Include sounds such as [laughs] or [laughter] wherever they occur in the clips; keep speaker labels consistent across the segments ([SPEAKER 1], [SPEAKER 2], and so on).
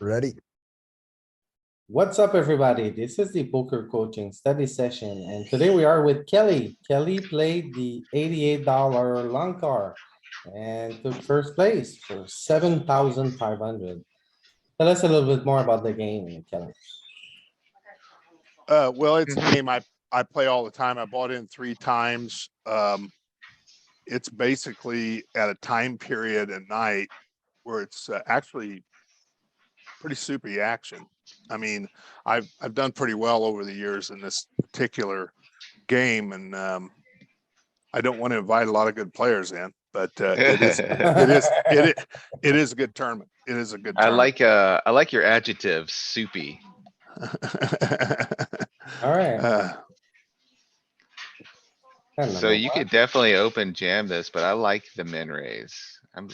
[SPEAKER 1] Ready?
[SPEAKER 2] What's up, everybody? This is the poker coaching study session, and today we are with Kelly. Kelly played the eighty-eight dollar long car and took first place for seven thousand five hundred. Tell us a little bit more about the game, Kelly.
[SPEAKER 3] Uh, well, it's a
[SPEAKER 4] Mm-hmm.
[SPEAKER 3] game I, I play all the time. I bought in three times. Um, it's basically at a time period at night where it's uh, actually pretty soupy action. I mean, I've, I've done pretty well over the years in this particular game and, um, I don't want to invite a lot of good players in, but, uh, it [laughs]
[SPEAKER 4] [laughs]
[SPEAKER 3] is, [laughs] it is, it is, it is a good tournament. It is a good.
[SPEAKER 4] I
[SPEAKER 3] tournament.
[SPEAKER 4] like, uh, I like your adjective, soupy.
[SPEAKER 2] Alright.
[SPEAKER 3] [laughs] Uh,
[SPEAKER 4] So you could definitely open jam this, but I like the min raise. I'm,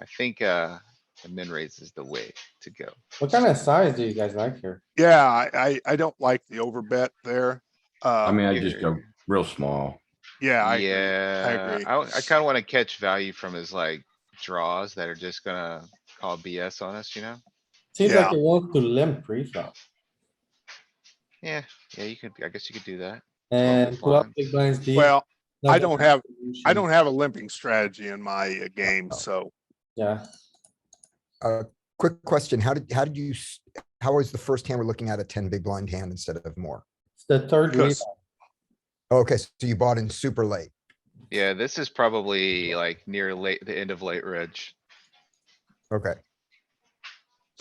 [SPEAKER 4] I think, uh, the min raise is the way to go.
[SPEAKER 2] What kind of size do you guys like here?
[SPEAKER 3] Yeah, I, I, I don't like the overbet there.
[SPEAKER 5] I
[SPEAKER 3] Um
[SPEAKER 5] mean, I
[SPEAKER 4] you-
[SPEAKER 5] just go real small.
[SPEAKER 3] yeah, I, agree.
[SPEAKER 4] Yeah,
[SPEAKER 3] agree.
[SPEAKER 4] I, I kinda wanna catch value from his like draws that are just gonna call BS on us, you know?
[SPEAKER 2] Seems like
[SPEAKER 3] Yeah.
[SPEAKER 2] you want to limp pre-flop
[SPEAKER 4] Yeah, yeah, you could, I guess you could do that.
[SPEAKER 2] and
[SPEAKER 4] big
[SPEAKER 2] twelve
[SPEAKER 4] blinds.
[SPEAKER 2] big blinds deep.
[SPEAKER 3] well, I don't have, I
[SPEAKER 2] solution.
[SPEAKER 3] don't have a limping strategy in my uh, game,
[SPEAKER 4] Oh,
[SPEAKER 3] so
[SPEAKER 2] Yeah,
[SPEAKER 1] Uh, quick question. How did, how did you, s- how was the first hand we're looking at a ten big blind hand instead of more? Oh,
[SPEAKER 2] it's the third
[SPEAKER 3] Because-
[SPEAKER 2] reason.
[SPEAKER 1] Okay, so you bought in super late.
[SPEAKER 4] Yeah, this is probably like near late, the end of late reg,
[SPEAKER 1] Okay,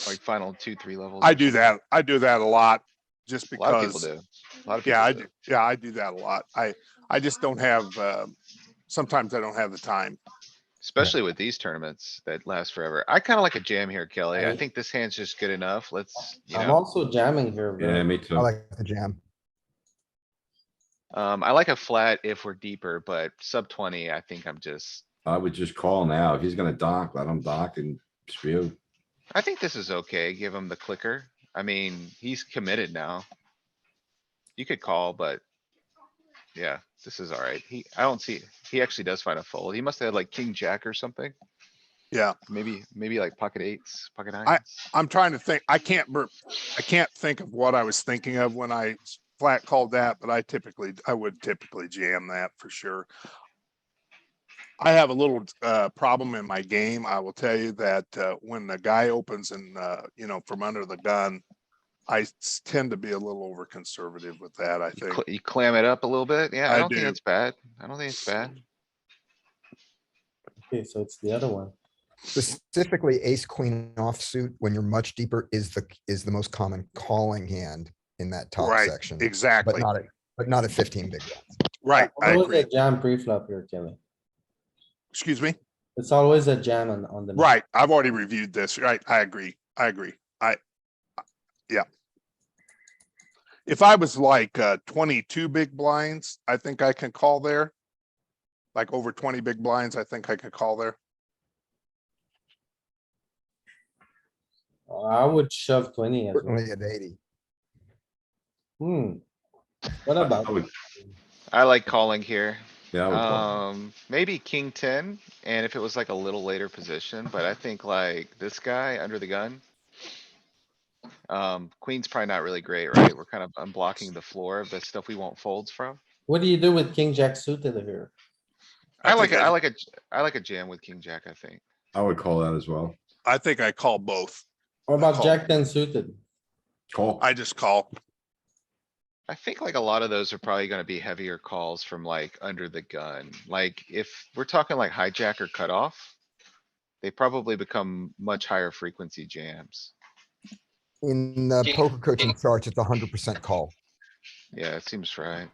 [SPEAKER 4] like final two, three levels.
[SPEAKER 3] I
[SPEAKER 4] or
[SPEAKER 3] do
[SPEAKER 4] something.
[SPEAKER 3] that. I do that a lot just
[SPEAKER 4] A lot of people
[SPEAKER 3] because,
[SPEAKER 4] do. A lot of
[SPEAKER 3] yeah, I,
[SPEAKER 4] people
[SPEAKER 3] do- yeah, I do that a lot. I, I just don't have, um, sometimes I don't have the time.
[SPEAKER 4] Especially with these tournaments that last forever. I kinda like a jam here, Kelly. I
[SPEAKER 2] Right.
[SPEAKER 4] think this hand's just good enough. Let's, you
[SPEAKER 2] I'm
[SPEAKER 4] know,
[SPEAKER 2] also jamming here,
[SPEAKER 5] Yeah,
[SPEAKER 2] bro.
[SPEAKER 5] me
[SPEAKER 1] I
[SPEAKER 5] too.
[SPEAKER 1] like the jam.
[SPEAKER 4] um, I like a flat if we're deeper, but sub twenty, I think I'm just.
[SPEAKER 5] I would just call now. If he's gonna dock, let him dock and spew.
[SPEAKER 4] I think this is okay. Give him the clicker. I mean, he's committed now. You could call, but. Yeah, this is alright. He, I don't see, he actually does find a fold. He must have had like king jack or something.
[SPEAKER 3] Yeah.
[SPEAKER 4] Maybe, maybe like pocket eights, pocket
[SPEAKER 3] I-
[SPEAKER 4] nines.
[SPEAKER 3] I'm trying to think, I can't, mer- I can't think of what I was thinking of when I s- flat called that, but I typically, I would typically jam that for sure. I have a little, uh, problem in my game. I will tell you that, uh, when the guy opens and, uh, you know, from under the gun, I s- tend to be a little over conservative with that, I
[SPEAKER 4] You
[SPEAKER 3] think.
[SPEAKER 4] cl- You clam it up a little bit. Yeah,
[SPEAKER 3] I
[SPEAKER 4] I don't think
[SPEAKER 3] do.
[SPEAKER 4] it's bad. I don't think it's bad.
[SPEAKER 2] Okay, so it's the other one.
[SPEAKER 1] Specifically ace queen offsuit when you're much deeper is the, is the most common calling hand in that top
[SPEAKER 3] Right,
[SPEAKER 1] section. But
[SPEAKER 3] Exactly,
[SPEAKER 1] not, at- but not at fifteen big blinds.
[SPEAKER 3] right. I
[SPEAKER 2] Always
[SPEAKER 3] agree.
[SPEAKER 2] a jam pre-flop here, Kelly.
[SPEAKER 3] Excuse me?
[SPEAKER 2] It's always a jam on, on the.
[SPEAKER 3] Right, I've already reviewed this, right, I agree, I agree, I, I- yeah. If I was like, uh, twenty-two big blinds, I think I can call there. Like over twenty big blinds, I think I could call there.
[SPEAKER 2] I would shove twenty as well.
[SPEAKER 1] Certainly at eighty.
[SPEAKER 2] Hmm. What
[SPEAKER 5] I
[SPEAKER 2] about?
[SPEAKER 5] would-
[SPEAKER 4] I like calling here.
[SPEAKER 5] Yeah, I would call.
[SPEAKER 4] Um, maybe king ten, and if it was like a little later position, but I think like this guy under the gun. Um, queen's probably not really great, right? We're kind of unblocking the floor of the stuff we want folds from.
[SPEAKER 2] What do you do with king jack suited here?
[SPEAKER 3] I
[SPEAKER 4] I like,
[SPEAKER 3] think
[SPEAKER 4] a-
[SPEAKER 3] I-
[SPEAKER 4] I like a, j- I like a jam with king jack, I think.
[SPEAKER 5] I would call that as well.
[SPEAKER 3] I think I call both,
[SPEAKER 2] What about
[SPEAKER 3] call.
[SPEAKER 2] jack ten suited?
[SPEAKER 5] Call.
[SPEAKER 3] I just call,
[SPEAKER 4] I think like a lot of those are probably gonna be heavier calls from like under the gun. Like if we're talking like hijack or cutoff. They probably become much higher frequency jams.
[SPEAKER 1] In the poker coaching charts, it's hundred percent call.
[SPEAKER 4] Yeah, it seems right.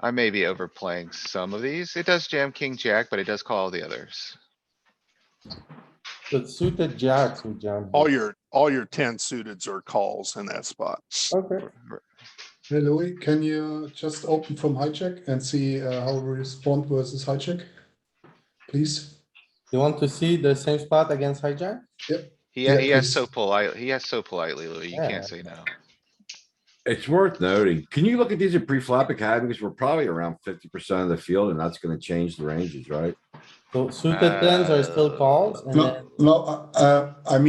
[SPEAKER 4] I may be overplaying some of these. It does jam king jack, but it does call the others.
[SPEAKER 2] But suited jacks we jam.
[SPEAKER 3] all your, all your ten suiteds are calls in that spot.
[SPEAKER 2] Okay,
[SPEAKER 6] Hey Louis, can you just open from hijack and see uh, how we respond versus hijack? Please?
[SPEAKER 2] you want to see the same spot against hijack?
[SPEAKER 4] He,
[SPEAKER 6] Yeah,
[SPEAKER 4] he has so
[SPEAKER 6] he's-
[SPEAKER 4] polite, he has so politely, Louis. You
[SPEAKER 2] Yeah.
[SPEAKER 4] can't say no.
[SPEAKER 5] It's worth noting. Can you look at these at pre-flop academy? Because we're probably around fifty percent of the field and that's gonna change the ranges, right?
[SPEAKER 2] So suited tens are still calls and then.
[SPEAKER 6] No, no, uh, uh, I mean.